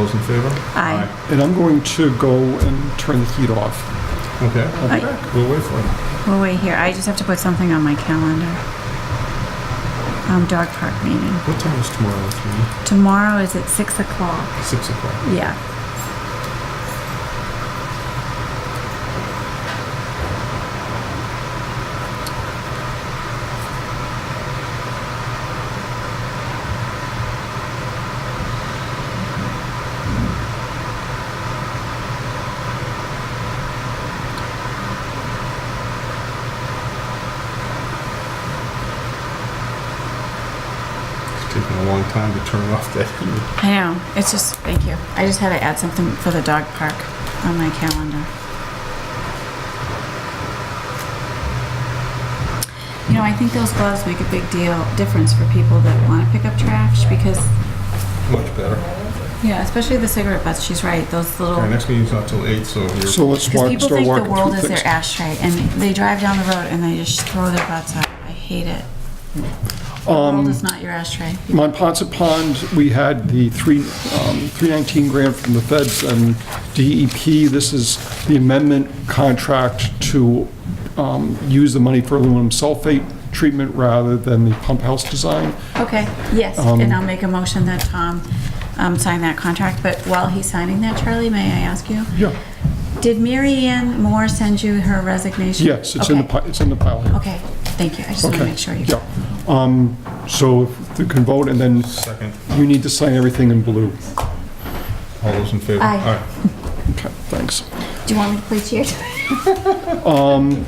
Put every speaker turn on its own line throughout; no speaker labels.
Those in favor?
Aye.
And I'm going to go and turn the heat off.
Okay,
Aye.
we'll wait for it.
We'll wait here. I just have to put something on my calendar. Um, dog park meeting.
What time is tomorrow, Judy?
Tomorrow is at six o'clock.
Six o'clock.
Yeah.
It's taking a long time to turn off that heat.
I know. It's just, thank you. I just had to add something for the dog park on my calendar. You know, I think those gloves make a big deal, difference for people that want to pick up trash because,
Much better.
yeah, especially the cigarette butts, she's right, those
Our
little.
next meeting's not till eight, so you're...
So let's
Because
walk,
people
start
think the
walking
world is
through
their
things.
ashtray and they drive down the road and they just throw their butts out. I hate it. The world
Um,
is not your ashtray.
Mont Ponce Pond, we had the three, um, 319 grant from the feds and DEP. This is the amendment contract to um, use the money for aluminum sulfate treatment rather than the pump house design.
Okay, yes,
um,
and I'll make a motion that Tom um, sign that contract, but while he's signing that, Charlie, may I ask you?
Yeah,
Did Mary Ann Moore send you her resignation?
yes, it's in the,
Okay,
pi- it's in the pile here.
Okay, thank you, I just want to
Okay,
make sure you.
Yeah. Um, So if you can vote, and then
Second.
you need to sign everything in blue.
All those in favor?
Aye.
All right.
Okay, thanks.
Do you want me to play cheer?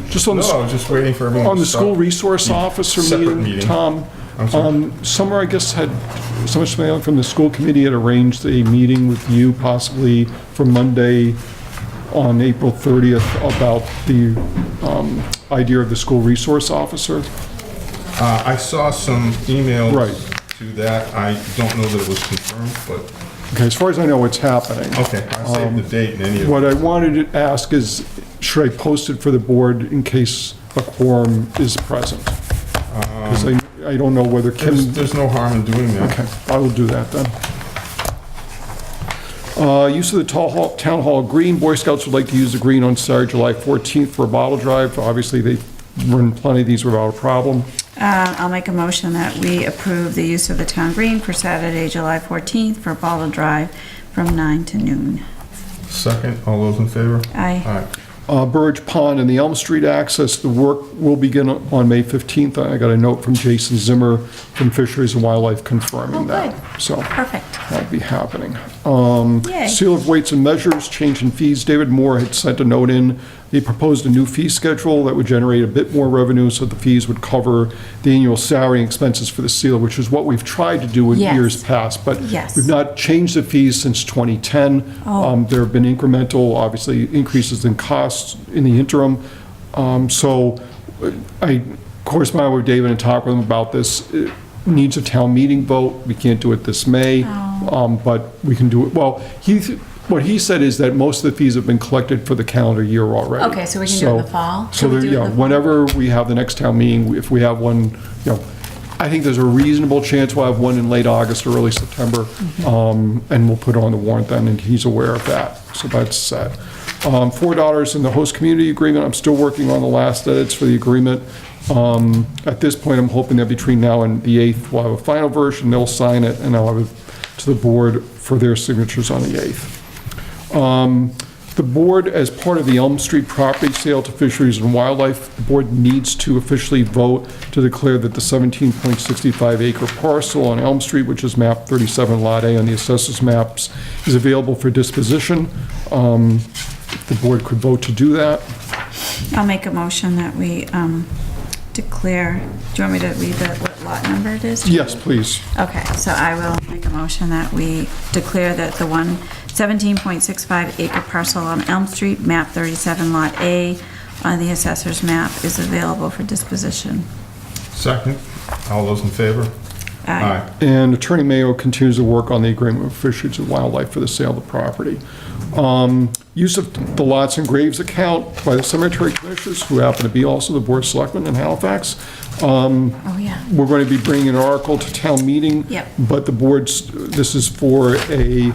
Just on the
No, I was just waiting for everyone to
On the
stop.
school resource officer
Separate
meeting,
meeting.
Tom,
I'm sorry.
um, Summer, I guess, had, Summer Smail from the school committee had arranged a meeting with you possibly for Monday on April 30th about the um, idea of the school resource officer.
Uh, I saw some emails
Right.
to that. I don't know that it was confirmed, but,
Okay, as far as I know, it's happening.
okay, I saved the date in any of
Um, What I wanted to ask is, should I post it for the board in case a quorum is present? Because I, I don't know whether Kim...
There's, there's no harm in doing that.
Okay, I will do that then. Uh, Use of the Tall Hall- Town Hall Green, Boy Scouts would like to use the green on Saturday, July 14th for a bottle drive. Obviously, they run plenty of these without a problem.
Uh, I'll make a motion that we approve the use of the town green for Saturday, July 14th for Bottle Drive from 9 to noon.
Second, all those in favor? All
Aye.
right.
Uh, Burridge Pond and the Elm Street access, the work will begin on May 15th. I got a note from Jason Zimmer from Fisheries and Wildlife confirming
Oh,
that.
good.
So
Perfect.
that'll be happening. Um,
Yay.
Seal of weights and measures, change in fees. David Moore had sent a note in. He proposed a new fee schedule that would generate a bit more revenue, so the fees would cover the annual salary and expenses for the seal, which is what we've tried to do in
Yes.
years past. But
Yes.
we've not changed the fees since 2010. Um, There have been incremental, obviously, increases in costs in the interim. Um, So uh, I corresponded with David and talked with him about this. It Needs a town meeting vote. We can't do it this May. Um, But we can do it, well, he, what he said is that most of the fees have been collected for the calendar year already.
Okay, so we can do it in the fall?
So,
Can we
there-
do it in
yeah,
the fall?
whenever we have the next town meeting, if we have one, you know, I think there's a reasonable chance we'll have one in late August or early September,
Mm-hmm.
um, and we'll put it on the warrant then, and he's aware of that, so that's set. Um, Four dollars in the host community agreement, I'm still working on the last edits for the agreement. Um, At this point, I'm hoping that between now and the 8th, we'll have a final version, they'll sign it, and I'll have it to the board for their signatures on the 8th. The board, as part of the Elm Street property sale to Fisheries and Wildlife, the board needs to officially vote to declare that the 17.65 acre parcel on Elm Street, which is map 37 Lot A on the assessors maps, is available for disposition. Um, The board could vote to do that.
I'll make a motion that we um, declare, do you want me to read the what lot number it is?
Yes, please.
Okay, so I will make a motion that we declare that the one 17.65 acre parcel on Elm Street, map 37, lot A, on the assessor's map is available for disposition.
Second, all those in favor?
Aye.
And Attorney Mayo continues to work on the agreement with Fisheries and Wildlife for the sale of the property. Um, Use of the lots and graves account by the cemetery commissioners, who happen to be also the board of selectmen in Halifax. Um,
Oh, yeah.
We're going to be bringing an article to town meeting.
Yep.
But the board's, this is for a